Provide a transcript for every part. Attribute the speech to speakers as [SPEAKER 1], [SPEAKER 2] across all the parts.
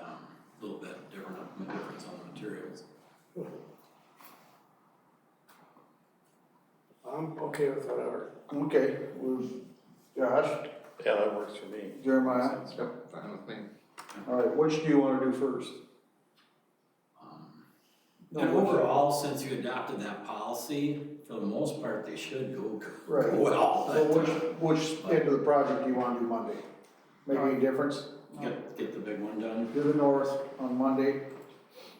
[SPEAKER 1] um, materials.
[SPEAKER 2] I'm okay with whatever.
[SPEAKER 3] Okay, was Josh,
[SPEAKER 4] Yeah, that works for me.
[SPEAKER 3] Jeremiah,
[SPEAKER 5] Yep, fine with me.
[SPEAKER 3] all right, which do you wanna do first?
[SPEAKER 1] Um, And overall, since you adopted that policy, for the most part, they should go
[SPEAKER 3] Right.
[SPEAKER 1] well,
[SPEAKER 3] So
[SPEAKER 1] but
[SPEAKER 3] which,
[SPEAKER 1] uh,
[SPEAKER 3] which end of the project do you wanna do Monday? Make any difference?
[SPEAKER 1] get, get the big one done.
[SPEAKER 3] Do the north on Monday,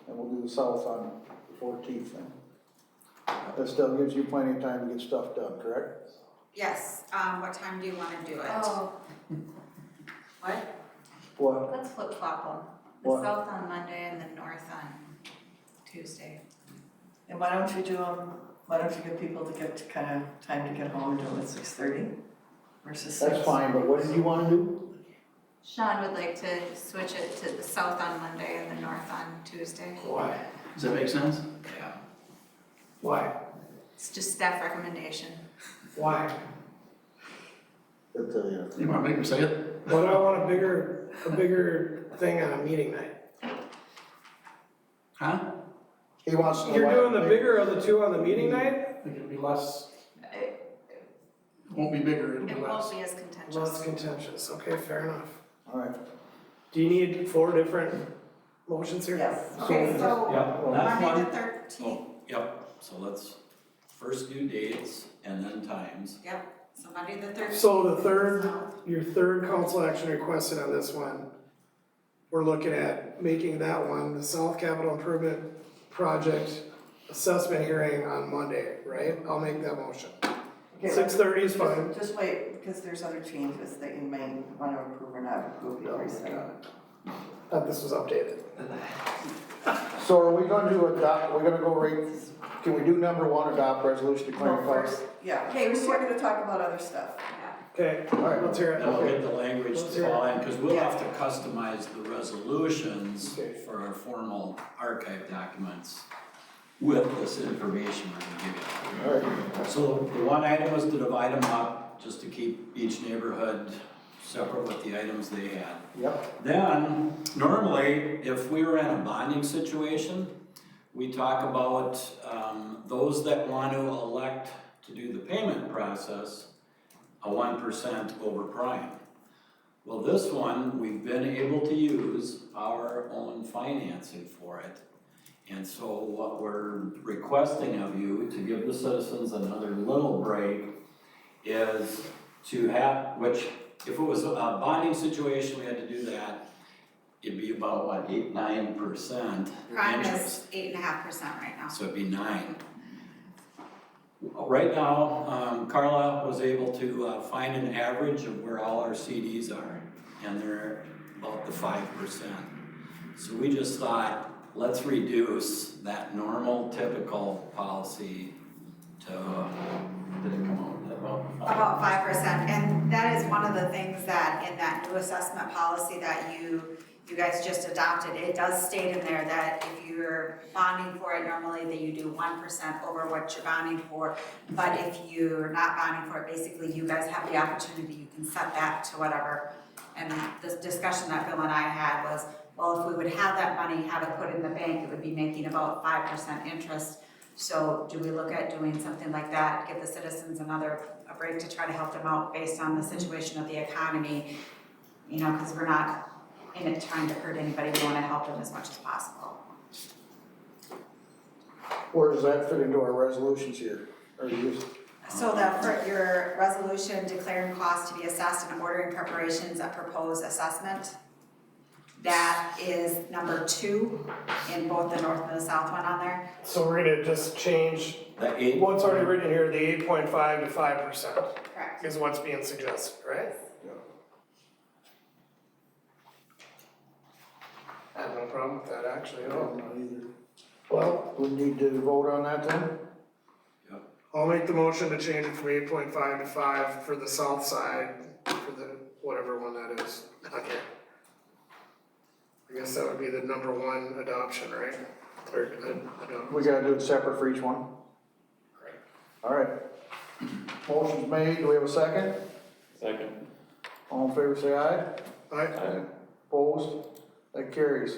[SPEAKER 3] and we'll do the south on the fourteenth then. That still gives you plenty of time to get stuff done, correct?
[SPEAKER 6] Yes, um, what time do you wanna do it?
[SPEAKER 7] Oh,
[SPEAKER 3] What?
[SPEAKER 7] let's flip flop them,
[SPEAKER 3] What?
[SPEAKER 7] the south on Monday and the north on Tuesday.
[SPEAKER 8] And why don't you do them, why don't you give people to get, kind of, time to get home, do them at six thirty versus six?
[SPEAKER 3] That's fine, but what did you wanna do?
[SPEAKER 7] Sean would like to switch it to the south on Monday and the north on Tuesday.
[SPEAKER 2] Why?
[SPEAKER 1] Does that make sense? Yeah.
[SPEAKER 2] Why?
[SPEAKER 7] It's just staff recommendation.
[SPEAKER 2] Why?
[SPEAKER 3] That's, uh,
[SPEAKER 1] You wanna make them say it?
[SPEAKER 2] Why do I want a bigger, a bigger thing on a meeting night?
[SPEAKER 1] Huh?
[SPEAKER 3] He wants to.
[SPEAKER 2] You're doing the bigger of the two on the meeting night?
[SPEAKER 1] It'll be less.
[SPEAKER 7] It
[SPEAKER 1] Won't be bigger, it'll be
[SPEAKER 7] it
[SPEAKER 1] less.
[SPEAKER 7] won't be as
[SPEAKER 2] Less
[SPEAKER 7] contentious.
[SPEAKER 2] contentious, okay, fair enough.
[SPEAKER 3] All right,
[SPEAKER 2] Do you need four different motions here?
[SPEAKER 8] Yes.
[SPEAKER 6] Okay, so
[SPEAKER 1] Yep,
[SPEAKER 3] well,
[SPEAKER 1] that's
[SPEAKER 6] Monday the
[SPEAKER 1] one.
[SPEAKER 6] thirteenth,
[SPEAKER 1] Oh, Yep, so let's first do dates and then times.
[SPEAKER 6] so Monday the thirteenth.
[SPEAKER 2] So the third, your third council action requested on this one, we're looking at making that one, the South Capital Improvement Project assessment hearing on Monday, right? I'll make that motion.
[SPEAKER 8] Okay,
[SPEAKER 2] Six thirty is
[SPEAKER 8] just-
[SPEAKER 2] fine.
[SPEAKER 8] Just wait, because there's other changes that you may want to approve or not approve, you already said.
[SPEAKER 2] Thought this was updated.
[SPEAKER 3] so are we gonna do adopt, we're gonna go right, can we do number one, adopt resolution declaring
[SPEAKER 8] Well,
[SPEAKER 3] class?
[SPEAKER 8] first, yeah,
[SPEAKER 6] Okay,
[SPEAKER 8] okay,
[SPEAKER 6] we-
[SPEAKER 8] we're gonna talk about other stuff.
[SPEAKER 2] Okay,
[SPEAKER 3] All right,
[SPEAKER 2] let's hear it.
[SPEAKER 1] Then we'll get the language
[SPEAKER 2] Let's
[SPEAKER 1] to
[SPEAKER 2] hear it.
[SPEAKER 1] fall in, cause we'll have to customize the resolutions
[SPEAKER 3] Okay.
[SPEAKER 1] for our formal archive documents with this information we're gonna give you.
[SPEAKER 3] all right.
[SPEAKER 1] So the one item was to divide them up, just to keep each neighborhood separate with the items they had.
[SPEAKER 3] Yep,
[SPEAKER 1] Then, normally, if we were in a bonding situation, we talk about, um, those that want to elect to do the payment process, a one percent over prime. Well, this one, we've been able to use our own financing for it. And so what we're requesting of you to give the citizens another little break is to have, which if it was a bonding situation, we had to do that, it'd be about what, eight, nine percent
[SPEAKER 6] Prime
[SPEAKER 1] interest.
[SPEAKER 6] is eight and a half percent right now.
[SPEAKER 1] So it'd be nine. Right now, um, Carla was able to uh, find an average of where all our CDs are, and they're about the five percent. So we just thought, let's reduce that normal typical policy to, uh, did it come out about? five?
[SPEAKER 6] About five percent, and that is one of the things that in that new assessment policy that you, you guys just adopted, it does state in there that if you're bonding for it normally, that you do one percent over what you're bonding for. But if you're not bonding for it, basically you guys have the opportunity, you can set that to whatever. And this discussion that Bill and I had was, well, if we would have that money, have it put in the bank, it would be making about five percent interest. So do we look at doing something like that, give the citizens another a break to try to help them out based on the situation of the economy. You know, because we're not in it trying to hurt anybody, we wanna help them as much as possible.
[SPEAKER 3] where does that fit into our resolutions here? Or you just,
[SPEAKER 6] So that for your resolution declaring costs to be assessed and ordering preparations of proposed assessment. That is number two in both the north and the south one on there.
[SPEAKER 2] So we're gonna just change
[SPEAKER 1] The eight,
[SPEAKER 2] what's already written here, the eight point five to five percent
[SPEAKER 6] Correct.
[SPEAKER 2] is what's being suggested, right? I have no problem with that actually at
[SPEAKER 3] I don't
[SPEAKER 2] all.
[SPEAKER 3] know either.
[SPEAKER 2] Well,
[SPEAKER 3] We need to vote on that then?
[SPEAKER 2] I'll make the motion to change it from eight point five to five for the south side, for the, whatever one that is, okay. I guess that would be the number one adoption, right? Or, uh, adopt-
[SPEAKER 3] We gotta do it separate for each one? All right. Motion's made, do we have a second?
[SPEAKER 4] Second.
[SPEAKER 3] All in favor, say aye.
[SPEAKER 2] I,
[SPEAKER 4] Aye.
[SPEAKER 3] Opposed? That carries.